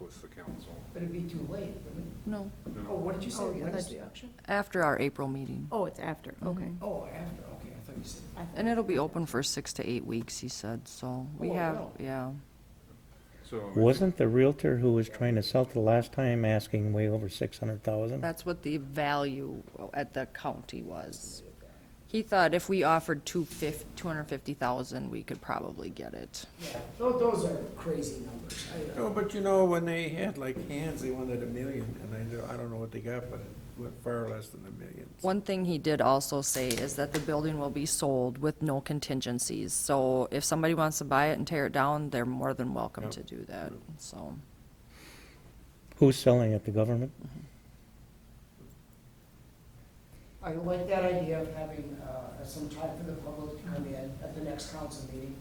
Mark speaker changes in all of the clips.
Speaker 1: with the council.
Speaker 2: But it'd be too late, wouldn't
Speaker 3: No,
Speaker 1: No,
Speaker 2: it?
Speaker 1: no.
Speaker 2: Oh, what did you say?
Speaker 4: Oh,
Speaker 2: When is
Speaker 4: that's-
Speaker 2: the auction?
Speaker 3: after our April meeting. Mm-hmm.
Speaker 4: Oh, it's after, okay.
Speaker 2: Oh, after, okay, I thought you said.
Speaker 4: I thought-
Speaker 3: And it'll be open for six to eight weeks, he said, so we
Speaker 2: Oh,
Speaker 3: have,
Speaker 2: wow.
Speaker 3: yeah.
Speaker 1: So it's-
Speaker 5: Wasn't the realtor who was trying to sell it the last time asking way over six hundred
Speaker 2: Uh,
Speaker 5: thousand?
Speaker 3: That's what the value at the county was. He thought if we offered two fif, two hundred and fifty thousand, we could probably get it.
Speaker 2: Yeah, tho- those are crazy numbers. I- uh,
Speaker 6: No, but you know, when they had like hands, they wanted a million, and I don't, I don't know what they got, but it went far less than a million.
Speaker 3: One thing he did also say is that the building will be sold with no contingencies. So if somebody wants to buy it and tear it down, they're more than welcome
Speaker 6: Yep.
Speaker 3: to do that, so.
Speaker 5: Who's selling it, the government?
Speaker 2: I like that idea of having uh, some time for the public to come in at the next council meeting.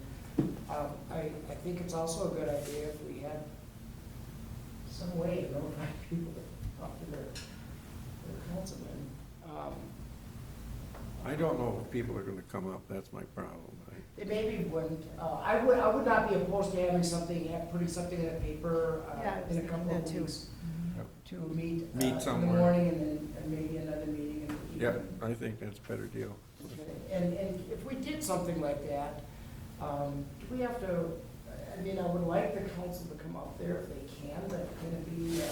Speaker 2: Um, I, I think it's also a good idea if we had some way to notify people to talk to their, their councilman. Um,
Speaker 6: I don't know if people are gonna come up, that's my problem. I-
Speaker 2: They maybe wouldn't, uh, I would, I would not be opposed to having something, ha- putting something in the paper,
Speaker 4: Yeah,
Speaker 2: uh, in a couple
Speaker 4: that
Speaker 2: of
Speaker 4: too.
Speaker 2: weeks. To meet. uh,
Speaker 6: Meet
Speaker 2: In the
Speaker 6: somewhere.
Speaker 2: morning and then, and maybe another meeting in the evening.
Speaker 6: Yeah, I think that's a better deal.
Speaker 2: And, and if we did something like that, um, do we have to, I mean, I would like the council to come up there if they can, but can it be, um,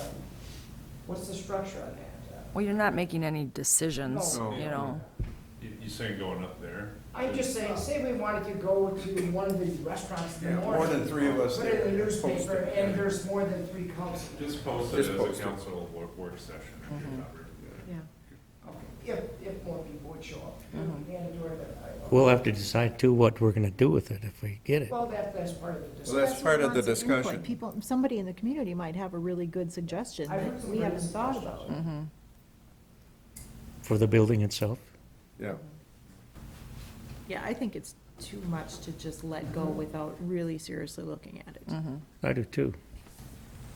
Speaker 2: what's the structure on that? Uh,
Speaker 3: Well, you're not making any decisions,
Speaker 6: No.
Speaker 3: you know.
Speaker 1: You, you saying going up there?
Speaker 2: I'm just saying, say we wanted to go to one of the restaurants in the
Speaker 6: Yeah,
Speaker 2: morning.
Speaker 6: more than three of us
Speaker 2: Put it in the
Speaker 6: there, post
Speaker 2: newspaper,
Speaker 6: it.
Speaker 2: and there's more than three council.
Speaker 1: Just post it as
Speaker 6: Just
Speaker 1: a
Speaker 6: post it.
Speaker 1: council work, work session. if you're covered.
Speaker 4: Yeah.
Speaker 2: Okay, If, if more people would show up. Mandatory, but I-
Speaker 5: We'll have to decide too what we're gonna do with it if we get it.
Speaker 2: Well, that, that's part of the discussion.
Speaker 6: Well, that's
Speaker 4: what
Speaker 6: part of the
Speaker 4: lots input.
Speaker 6: discussion.
Speaker 4: People, somebody in the community might have a really good suggestion
Speaker 2: I heard
Speaker 4: that
Speaker 2: some
Speaker 4: we
Speaker 2: great
Speaker 4: haven't thought
Speaker 2: suggestions.
Speaker 4: about.
Speaker 3: Mm-hmm,
Speaker 5: For the building itself?
Speaker 6: Yeah,
Speaker 4: Yeah, I think it's too much to just let go without really seriously looking at it.
Speaker 3: Mm-hmm.
Speaker 5: I do too.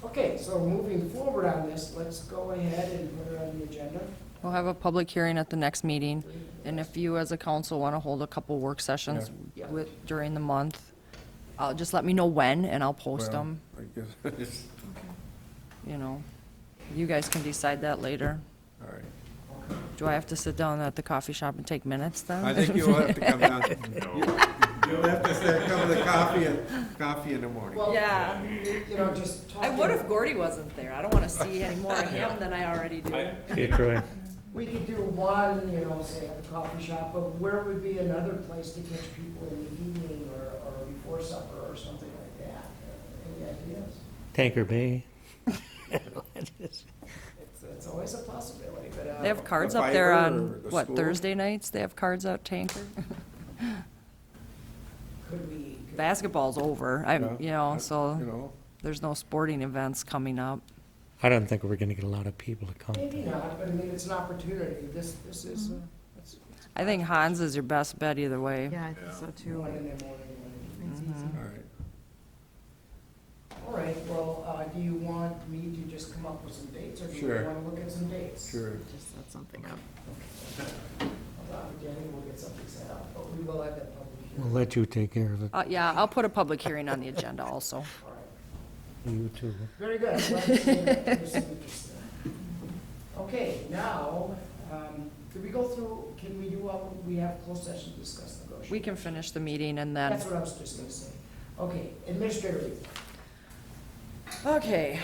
Speaker 2: Okay, so moving forward on this, let's go ahead and put it on the agenda.
Speaker 3: We'll have a public hearing at the next meeting, and if you as a council want to hold a couple work sessions
Speaker 2: Yeah.
Speaker 3: with, during the month, uh, just let me know when, and I'll post
Speaker 6: well,
Speaker 3: them,
Speaker 6: I guess, it's,
Speaker 3: you know. You guys can decide that later.
Speaker 6: all right.
Speaker 3: Do I have to sit down at the coffee shop and take minutes then?
Speaker 6: I think you'll have to come down,
Speaker 1: No,
Speaker 6: you'll have to start coming to coffee, and coffee in the morning.
Speaker 2: Well,
Speaker 3: Yeah.
Speaker 2: You know, just talking.
Speaker 3: Gordy wasn't there. I don't want to see any more of him than I already do.
Speaker 1: I,
Speaker 5: Yeah, Troy.
Speaker 2: We could do one, you know, say at the coffee shop, but where would be another place to catch people in the evening or, or before supper or something like that? Any ideas?
Speaker 5: Tanker Bay.
Speaker 2: It's, it's always a possibility, but, uh.
Speaker 3: They have cards
Speaker 6: The
Speaker 3: up there
Speaker 6: Fiverr or
Speaker 3: on,
Speaker 6: the
Speaker 3: what,
Speaker 6: school?
Speaker 3: Thursday nights? They have cards out Tanker?
Speaker 2: Could we? could-
Speaker 3: Basketball's over, I,
Speaker 6: Yeah,
Speaker 3: you know,
Speaker 6: I- You
Speaker 3: so
Speaker 6: know,
Speaker 3: there's no sporting events coming up.
Speaker 5: I don't think we're gonna get a lot of people to come.
Speaker 2: Maybe not, but I mean, it's an opportunity. This, this is, uh,
Speaker 3: Mm-hmm.
Speaker 2: it's, it's
Speaker 3: I think Hans is your best bet either way.
Speaker 4: Yeah, I think so too.
Speaker 2: one in the morning, one in the evening.
Speaker 4: It's
Speaker 3: Mm-hmm.
Speaker 4: easy.
Speaker 6: all right.
Speaker 2: All right, well, uh, do you want me to just come up with some dates, or do you
Speaker 6: Sure.
Speaker 2: want to look at some dates?
Speaker 6: Sure.
Speaker 4: Just set something up.
Speaker 2: Hold on, Jenny, we'll get something set up, but we will have that public
Speaker 5: We'll
Speaker 2: hearing.
Speaker 5: let you take care of it.
Speaker 3: Uh, yeah, I'll put a public hearing on the agenda also.
Speaker 2: All right.
Speaker 5: You too.
Speaker 2: Very good. Glad to see that there's some interest there. Okay, now, um, could we go through, can we do, all- we have closed session to discuss negotiations?
Speaker 3: We can finish the meeting and then,
Speaker 2: That's what I was just gonna say. Okay, administrator report.
Speaker 3: okay.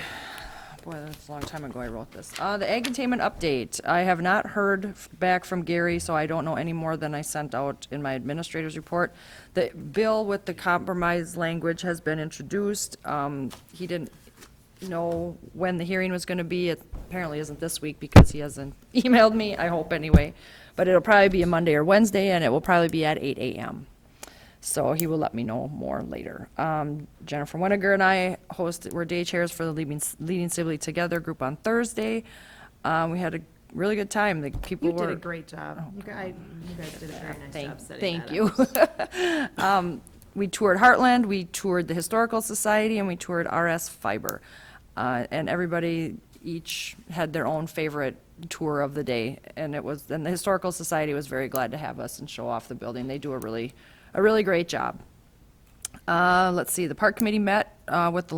Speaker 3: Boy, that's a long time ago I wrote this. Uh, the ag containment update, I have not heard f- back from Gary, so I don't know any more than I sent out in my administrator's report. The bill with the compromise language has been introduced. Um, he didn't know when the hearing was gonna be. It apparently isn't this week because he hasn't emailed me, I hope anyway. But it'll probably be a Monday or Wednesday and it will probably be at eight AM. So he will let me know more later. Um, Jennifer Winiger and I hosted, were day chairs for the Leading, Leading Civilly Together group on Thursday. Um, we had a really good time. The people
Speaker 4: You
Speaker 3: were.
Speaker 4: did a great job. You guys, you guys did a very nice job
Speaker 3: Thank,
Speaker 4: setting
Speaker 3: thank
Speaker 4: that
Speaker 3: you.
Speaker 4: up.
Speaker 3: Um, We toured Heartland, we toured the Historical Society, and we toured RS Fiber. Uh, And everybody each had their own favorite tour of the day. And it was, and the Historical Society was very glad to have us and show off the building. They do a really, a really great job. Uh, Let's see, the Park Committee met uh, with the